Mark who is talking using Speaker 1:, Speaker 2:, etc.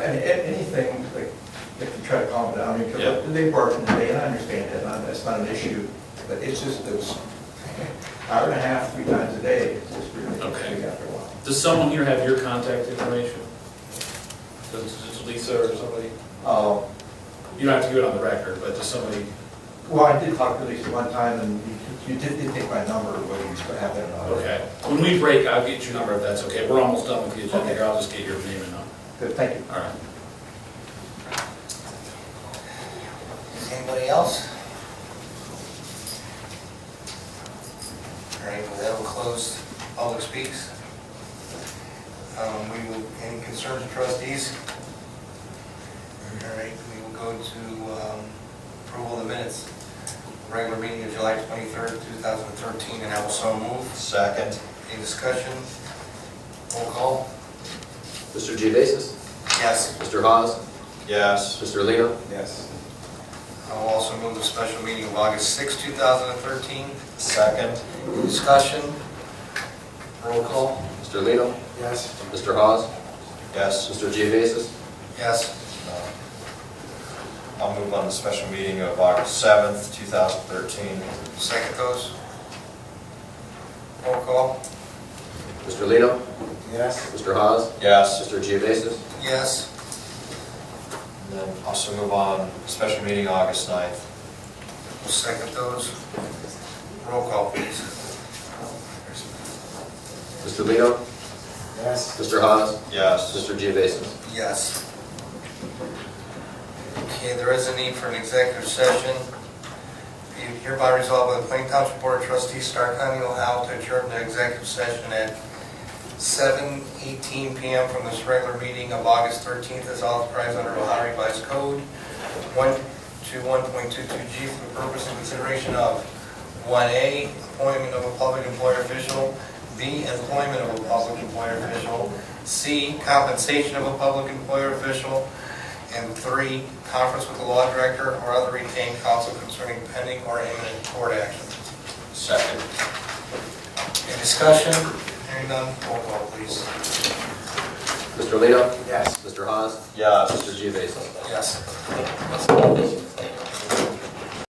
Speaker 1: any- any- anything, like, like to try to calm it down,
Speaker 2: Yeah.
Speaker 1: because they bark in the day, and I understand that, and that's not an issue, but it's just those hour and a half, three times a day, it's just really,
Speaker 2: Okay.
Speaker 1: getting after a while.
Speaker 2: Does someone here have your contact information? Does does Lisa or somebody,
Speaker 1: Uh,
Speaker 2: you don't have to give it on the record, but does somebody,
Speaker 1: Well, I did talk to Lisa one time, and you you did, did take my number, whether you still have it or not.
Speaker 2: okay. When we break, I'll get your number if that's okay. We're almost done with the agenda here, I'll just get your name and number.
Speaker 1: Good, thank you.
Speaker 2: All right.
Speaker 3: Anybody else? All right, well, that will close public speaks. Um, We will, any concerns of trustees? All right, we will go to um, approval of the minutes. Regular meeting of July 23rd, 2013, and I will so move.
Speaker 4: Second.
Speaker 3: Any discussion? Roll call?
Speaker 5: Mr. Geovasis?
Speaker 3: Yes.
Speaker 5: Mr. Hawes?
Speaker 4: Yes.
Speaker 5: Mr. Lino?
Speaker 4: Yes.
Speaker 3: I will also move the special meeting of August 6, 2013.
Speaker 4: Second.
Speaker 3: Discussion? Roll call?
Speaker 5: Mr. Lino?
Speaker 3: Yes.
Speaker 5: Mr. Hawes?
Speaker 4: Yes.
Speaker 5: Mr. Geovasis?
Speaker 3: Yes.
Speaker 4: I'll move on to special meeting of August 7th, 2013.
Speaker 3: Second those? Roll call?
Speaker 5: Mr. Lino?
Speaker 3: Yes.
Speaker 5: Mr. Hawes?
Speaker 4: Yes.
Speaker 5: Mr. Geovasis?
Speaker 3: Yes.
Speaker 4: And then also move on, special meeting August 9th.
Speaker 3: Second those? Roll call, please.
Speaker 5: Mr. Lino?
Speaker 3: Yes.
Speaker 5: Mr. Hawes?
Speaker 4: Yes.
Speaker 5: Mr. Geovasis?
Speaker 3: Yes. Okay, there is a need for an executive session. Be hereby resolved by the Plain Township Board of Trustees, Stark County, Ohio, to adjourn the executive session at 7:18 PM from this regular meeting of August 13th as authorized under Ohio Revised Code 121.22G for the purpose and consideration of 1A, appointment of a public employer official, B, employment of a public employer official, C, compensation of a public employer official, and three, conference with the law director or other retained counsel concerning pending or imminent court action.
Speaker 4: Second.
Speaker 3: Any discussion? Hearing none, roll call please.
Speaker 5: Mr. Lino?
Speaker 3: Yes.
Speaker 5: Mr. Hawes?
Speaker 4: Yes.
Speaker 5: Mr. Geovasis?
Speaker 3: Yes.